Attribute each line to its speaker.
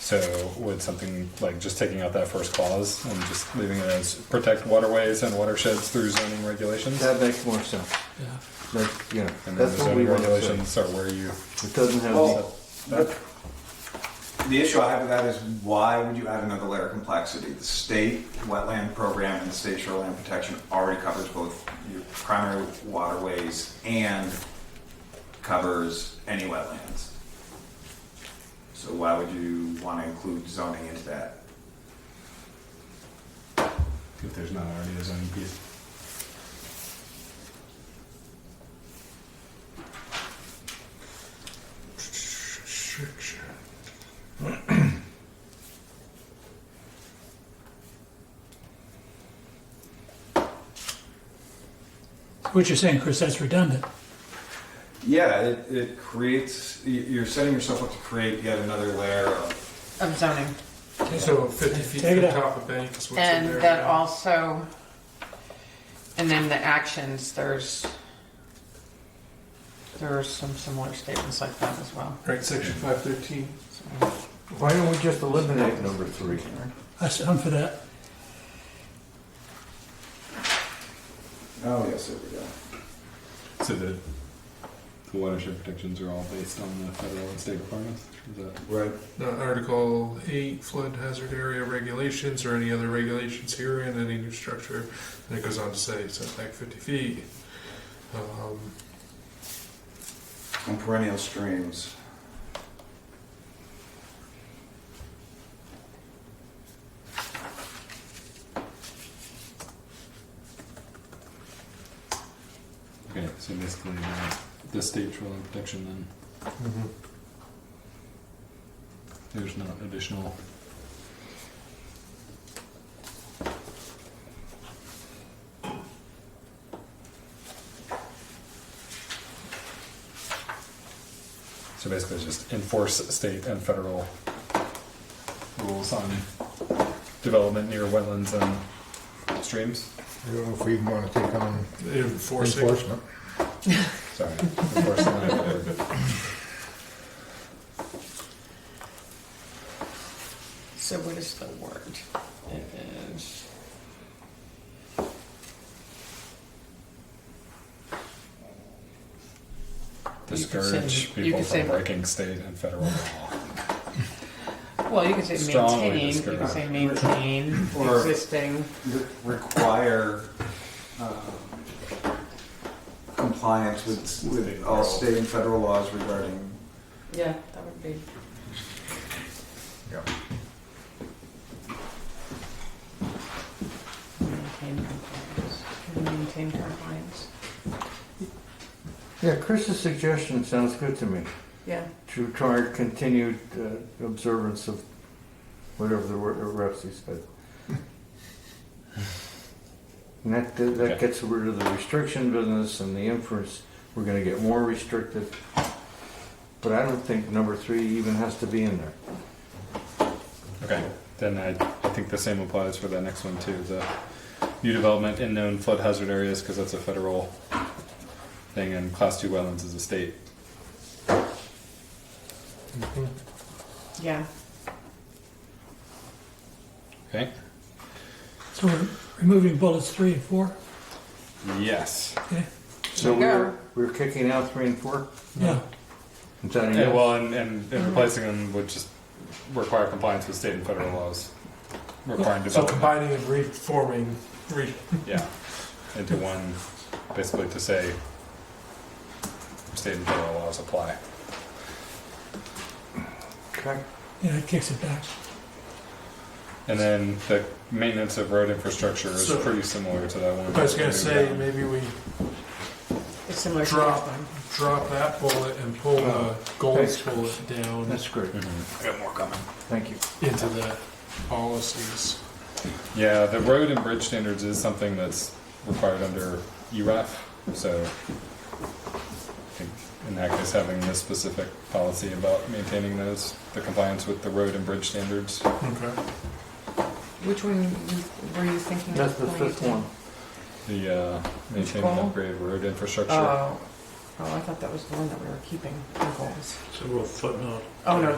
Speaker 1: So would something like just taking out that first clause and just leaving it as protect waterways and watersheds through zoning regulations?
Speaker 2: That makes more sense. That, yeah,
Speaker 1: And then
Speaker 2: that's
Speaker 1: the
Speaker 2: what we
Speaker 1: zoning
Speaker 2: want to say.
Speaker 1: regulations are where you,
Speaker 2: It doesn't have.
Speaker 3: Well, the the issue I have with that is why would you add another layer of complexity? The state wetland program and the state shoreline protection already covers both your primary waterways and covers any wetlands. So why would you want to include zoning into that?
Speaker 1: if there's not already a zoning piece.
Speaker 4: What you're saying, Chris, that's redundant.
Speaker 3: Yeah, it, it creates, y- you're setting yourself up to create yet another layer of,
Speaker 5: of zoning.
Speaker 6: So fifty feet
Speaker 4: Take it
Speaker 6: from
Speaker 4: out.
Speaker 6: top of bank is what's in there.
Speaker 5: And that
Speaker 6: now.
Speaker 5: also, and then the actions, there's, there are some similar statements like that as well.
Speaker 6: Right, section five thirteen.
Speaker 5: So,
Speaker 2: Why don't we just eliminate number three?
Speaker 4: I s- I'm for that.
Speaker 3: oh, yes, there we go.
Speaker 1: So the the watershed protections are all based on the federal and state requirements? Is that-
Speaker 3: Right.
Speaker 6: Uh, Article 8, flood hazard area regulations or any other regulations herein, any new structure. And it goes on to say setback 50 feet. Um,
Speaker 3: And perennial streams.
Speaker 1: Okay, so basically the, the state shoreline protection then, there's no additional. So basically just enforce state and federal rules on development near wetlands and streams.
Speaker 7: I don't know if we want to take on
Speaker 6: Enforcing.
Speaker 7: enforcement.
Speaker 1: Sorry, enforce the
Speaker 5: So what is the word? It is. You could say-
Speaker 1: discourage
Speaker 5: you
Speaker 1: people
Speaker 5: could say-
Speaker 1: from breaking state and federal law.
Speaker 5: Well, you could say
Speaker 1: Strongly
Speaker 5: maintain, you could say
Speaker 1: discouraged.
Speaker 5: maintain
Speaker 3: Or-
Speaker 5: existing,
Speaker 3: re- require um, compliance with, with all state and federal laws regarding,
Speaker 5: yeah, that would be. Maintain compliance, maintain compliance,
Speaker 2: Yeah, Chris's suggestion sounds good to me,
Speaker 5: yeah.
Speaker 2: to require continued uh, observance of whatever the word, reps he said. And that, that that
Speaker 1: Okay.
Speaker 2: gets rid of the restriction business and the inference, we're gonna get more restrictive. But I don't think number three even has to be in there.
Speaker 1: Okay, then I, I think the same applies for the next one too, the new development in known flood hazard areas, because that's a federal thing, and class two wetlands is a state.
Speaker 5: Yeah.
Speaker 1: Okay?
Speaker 4: So we're removing bullets three and four?
Speaker 1: Yes.
Speaker 4: Okay,
Speaker 2: So
Speaker 5: There you
Speaker 2: we're, we're kicking out three and four?
Speaker 4: yeah.
Speaker 2: Is that a
Speaker 1: Yeah,
Speaker 2: yes?
Speaker 1: well, and, and, and replacing them would just require compliance with state and federal laws. Requiring
Speaker 6: So
Speaker 1: development,
Speaker 6: combining and reforming, re-
Speaker 1: yeah, into one, basically to say state and federal laws apply.
Speaker 2: Okay.
Speaker 4: Yeah, it kicks it back.
Speaker 1: And then the maintenance of road infrastructure is
Speaker 6: So-
Speaker 1: pretty similar to that one.
Speaker 6: I was gonna say, maybe we
Speaker 5: It's similar to
Speaker 6: Drop.
Speaker 5: that one.
Speaker 6: drop that bullet and pull the goals
Speaker 2: Thanks.
Speaker 6: bullet down
Speaker 2: That's great,
Speaker 1: Mhm.
Speaker 3: I got more coming.
Speaker 2: thank you.
Speaker 6: into the policies.
Speaker 1: Yeah, the road and bridge standards is something that's required under URAF, so I think in that case, having this specific policy about maintaining those, the compliance with the road and bridge standards.
Speaker 6: Okay.
Speaker 5: Which one you- were you thinking? of
Speaker 2: That's the
Speaker 5: going
Speaker 2: fifth
Speaker 5: to?
Speaker 2: one.
Speaker 1: The uh, maintain and
Speaker 5: goal?
Speaker 1: upgrade of road
Speaker 6: Uh,
Speaker 1: infrastructure.
Speaker 5: Oh, oh, I thought that was the one that we were keeping, the goals.
Speaker 8: So we'll footnote
Speaker 5: Oh, no,